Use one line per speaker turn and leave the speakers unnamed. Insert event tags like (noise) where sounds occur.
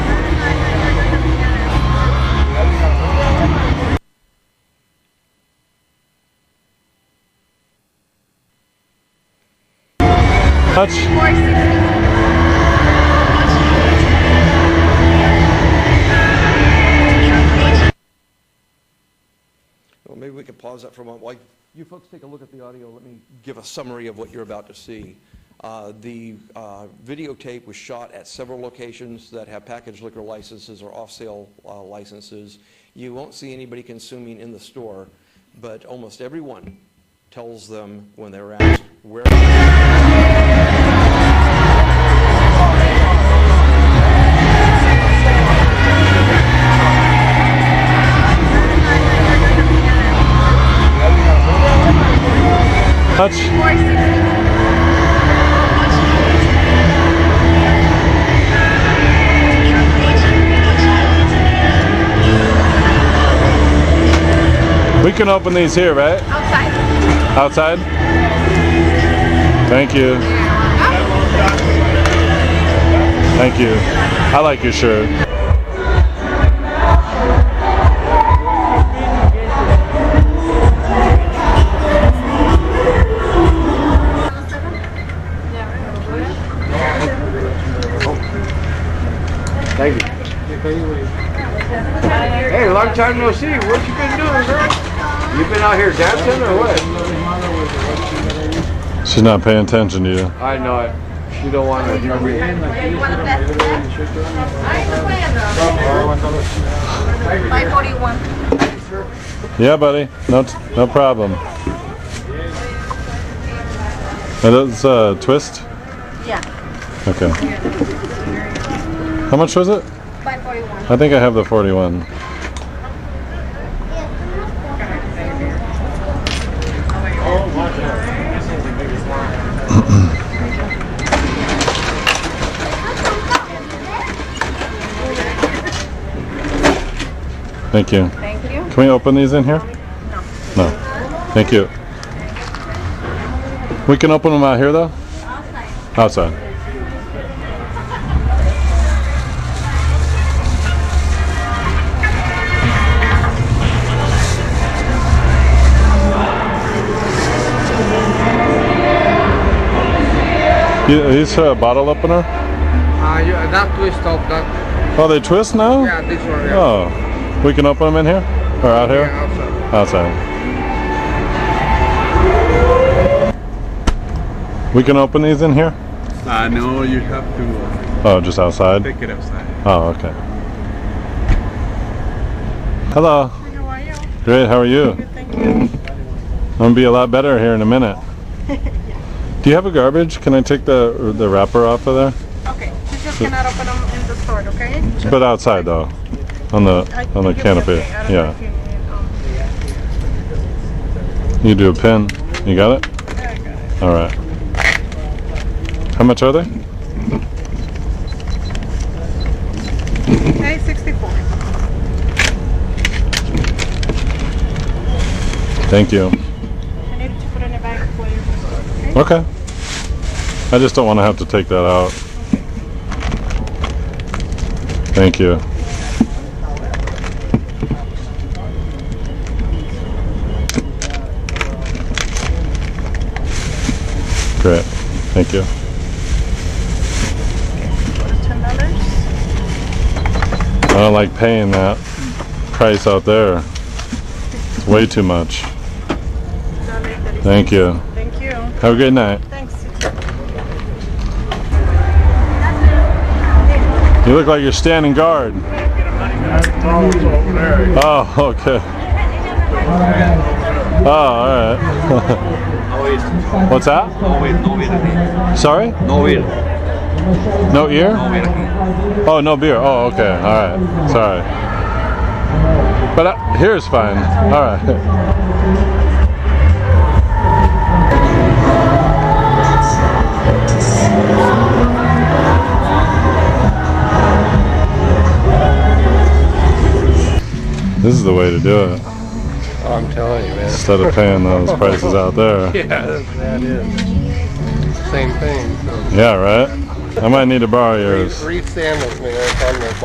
much?
Well, maybe we could pause that for a moment. While you folks take a look at the audio, let me give a summary of what you're about to see. Uh, The uh, videotape was shot at several locations that have packaged liquor licenses or off-sale uh, licenses. You won't see anybody consuming in the store, but almost everyone tells them when they're asked where...
Much? We can open these here, right?
Outside.
Outside? Thank you. Thank you. I like your shirt.
Thank you. Hey, long time no see. What you been doing, girl? You been out here dancing or what?
She's not paying attention to you.
I know it. She don't want to hear me.
Yeah, you want a bet? I Five forty-one.
Yeah, buddy. No, t- no problem. That is uh, twist.
Yeah,
Okay. How much was it?
five forty-one.
I think I have the 41. Thank you.
Thank you.
Can we open these in here? No. Thank you. We can open them out here though? Outside. You- Are these a bottle opener?
Uh, you, that twist up, that.
Oh, they twist now?
Yeah, this one. Yeah.
Oh, we can open them in here? Or out here?
Yeah, outside.
Outside. We can open these in here?
Uh, no, you have to
Oh, just outside?
take it outside.
Oh, okay. Hello.
How are you?
Great, how are you?
Thank you.
I'm gonna be a lot better here in a
(laughs)
minute. Do you have a garbage? Can I take the the wrapper off of there?
Okay, you just cannot open them in the store, okay?
But outside though, on
I
the on the
think it's
canopy.
okay. I don't
Yeah.
think you need, um,
You do a pin. You got it?
there you go.
All right. How much are they?
Hey, 64.
Thank you.
I need to put in a bag for you.
Okay. I just don't want to have to take that out. Thank you. Great. Thank you.
$10.
I don't like paying that price out there. It's way too much. Thank you.
Thank you.
Have a great night.
Thanks.
You look like you're standing guard. Oh, okay. Oh, all right. (laughs)
No ear.
What's that?
No ear. No ear.
Sorry?
No ear.
No ear?
No ear.
Oh, no beer. Oh, okay. All right. Sorry. But uh, here's fine. All right. This is the way to do it.
Oh, I'm telling you, man.
Instead of paying those prices out there.
(laughs) Yeah, that's- that is. Same thing. So.
Yeah, right? I might need to borrow yours.
Re- Re-stand with me. It's on the